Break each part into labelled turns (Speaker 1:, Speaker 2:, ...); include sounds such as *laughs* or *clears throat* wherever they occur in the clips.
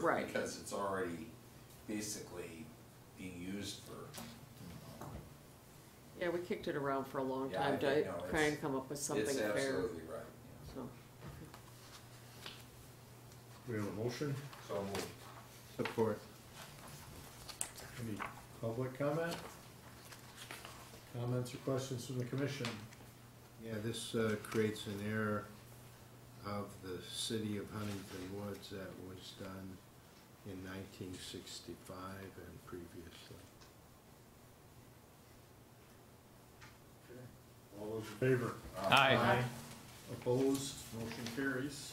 Speaker 1: Right.
Speaker 2: Because it's already basically being used for.
Speaker 1: Yeah, we kicked it around for a long
Speaker 2: Yeah, I
Speaker 1: time to
Speaker 2: think, no,
Speaker 1: try
Speaker 2: it's-
Speaker 1: and come up with something
Speaker 2: It's
Speaker 1: fair,
Speaker 2: absolutely right, yes.
Speaker 1: so.
Speaker 3: We have a motion,
Speaker 2: So moved.
Speaker 4: Support.
Speaker 3: any public comment? Comments or questions from the commission?
Speaker 4: Yeah, this uh, creates an error of the city of Huntington Woods that was done in nineteen sixty-five and previously.
Speaker 3: All those in favor?
Speaker 5: Aye.
Speaker 3: Opposed, motion carries.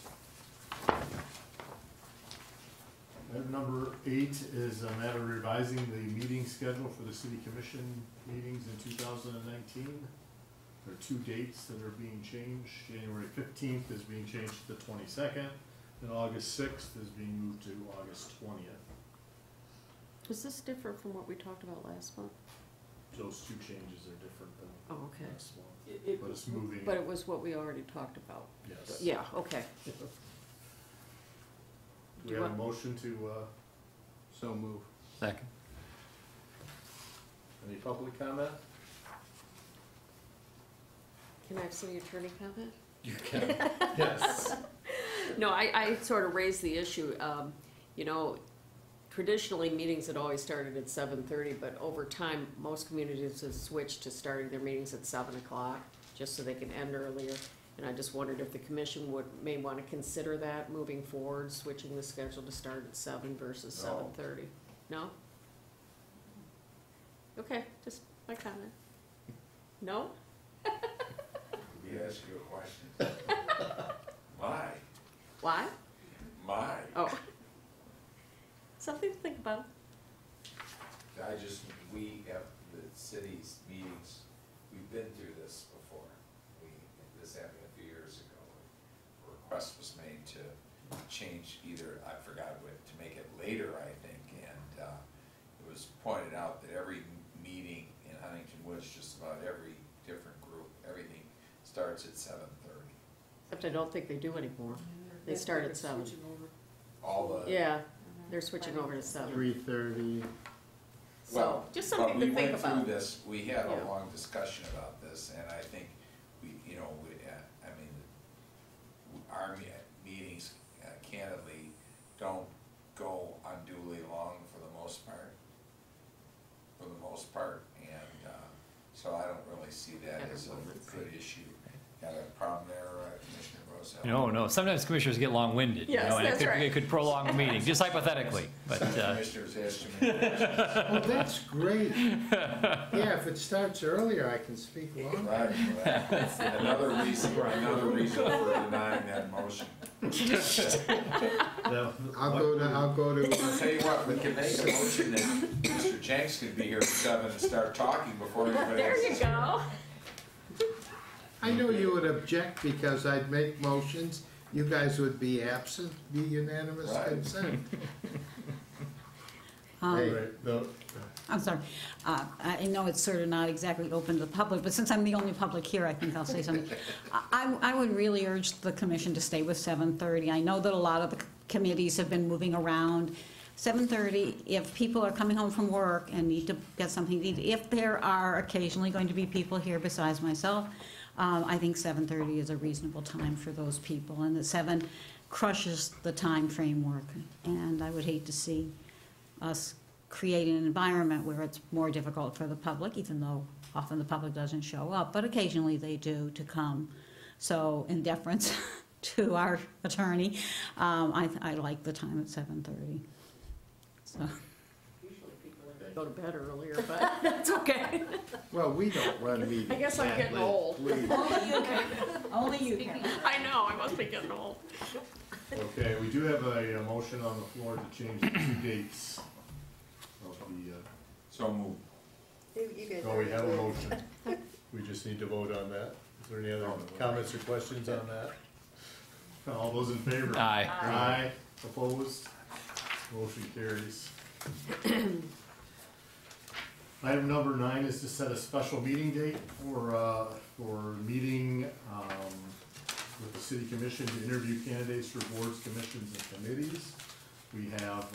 Speaker 3: Item number eight is a matter revising the meeting schedule for the city commission meetings in two thousand and nineteen. There are two dates that are being changed, January fifteenth is being changed to the twenty-second, and August sixth is being moved to August twentieth.
Speaker 1: Was this different from what we talked about last month?
Speaker 3: Those two changes are different than
Speaker 1: Oh, okay.
Speaker 3: last one,
Speaker 1: It- it-
Speaker 3: but it's moving,
Speaker 1: But it was what we already talked about.
Speaker 3: yes.
Speaker 1: Yeah, okay.
Speaker 3: Do we
Speaker 1: Do
Speaker 3: have a
Speaker 1: what?
Speaker 3: motion to, uh,
Speaker 4: So move.
Speaker 5: Second.
Speaker 3: any public comment?
Speaker 1: Can I have city attorney comment?
Speaker 2: You can, yes.
Speaker 1: No, I, I sort of raised the issue, um, you know, traditionally, meetings had always started at seven thirty, but over time, most communities have switched to starting their meetings at seven o'clock, just so they can end earlier. And I just wondered if the commission would, may wanna consider that moving forward, switching the schedule to start at seven versus
Speaker 2: No.
Speaker 1: seven thirty. No? Okay, just my comment. No?
Speaker 2: Let me ask you a question. *laughs* My,
Speaker 1: Why?
Speaker 2: my,
Speaker 1: Oh. *laughs* Something to think about.
Speaker 2: I just, we have, the city's meetings, we've been through this before. We, this happened a few years ago. A Request was made to change either, I forgot what, to make it later, I think, and, uh, it was pointed out that every meeting in Huntington Woods, just about every different group, everything starts at seven thirty.
Speaker 1: Except I don't think they do anymore. They
Speaker 6: That's
Speaker 1: start
Speaker 6: where
Speaker 1: at
Speaker 6: it's
Speaker 1: seven.
Speaker 6: switching over.
Speaker 2: All the.
Speaker 1: Yeah, they're switching over to seven.
Speaker 4: Three thirty,
Speaker 1: So, just something to think
Speaker 2: But we went
Speaker 1: about.
Speaker 2: through this, we had
Speaker 1: Yeah.
Speaker 2: a long discussion about this, and I think we, you know, we, uh, I mean, w- our me- meetings uh, candidly don't go unduly long for the most part, for the most part, and, uh, so I don't really see that as a good issue. Got a problem there, uh, Commissioner Rosell?
Speaker 5: No, no, sometimes commissioners get long-winded, you
Speaker 1: Yes,
Speaker 5: know, and it
Speaker 1: that's
Speaker 5: could,
Speaker 1: right.
Speaker 5: it could prolong a
Speaker 1: *laughs*
Speaker 5: meeting, just hypothetically, but,
Speaker 2: Some
Speaker 5: uh,
Speaker 2: Commissioners ask too many questions,
Speaker 4: oh, that's great. Yeah, if it starts earlier, I can speak longer.
Speaker 2: right, well, that's another reason, another reason for denying that motion.
Speaker 4: I'll go to, I'll go
Speaker 2: I'll
Speaker 4: to,
Speaker 2: tell you what, we can make a motion that Mr. Jenks could be here at seven and start talking before everybody else.
Speaker 1: There you
Speaker 2: is-
Speaker 1: go.
Speaker 4: I know you would object because I'd make motions, you guys would be absent, be unanimous
Speaker 2: Right.
Speaker 4: consent.
Speaker 3: All
Speaker 4: Hey.
Speaker 3: right, the-
Speaker 6: I'm sorry, Uh, I know it's sort of not exactly open to the public, but since I'm the only public here, I think I'll say something. I, I would really urge the commission to stay with 7:30. I know that a lot of the committees have been moving around. 7:30, if people are coming home from work and need to get something to eat, if there are occasionally going to be people here besides myself, um, I think 7:30 is a reasonable time for those people, and the 7 crushes the time framework, and I would hate to see us create an environment where it's more difficult for the public, even though often the public doesn't show up, but occasionally they do to come. So in deference *laughs* to our attorney, um, I, I like the time at seven thirty. So, *laughs*
Speaker 1: Go to bed earlier, but that's okay.
Speaker 4: Well, we don't run meetings.
Speaker 1: I guess I'm
Speaker 4: that
Speaker 1: getting
Speaker 4: late.
Speaker 1: old.
Speaker 4: Please.
Speaker 6: only you can.
Speaker 1: *laughs* I know, I must be getting old.
Speaker 3: Okay, we do have a, uh motion on the floor to change the two dates of the, uh,
Speaker 2: So move.
Speaker 3: no, we have a motion.
Speaker 1: *laughs*
Speaker 3: We just need to vote on that. Is there any other comments or questions on that? All those in favor?
Speaker 5: aye.
Speaker 3: Aye, opposed, motion carries. *clears throat* Item number nine is to set a special meeting date for, uh, for meeting, um, with the city commission to interview candidates for boards, commissions, and committees. We have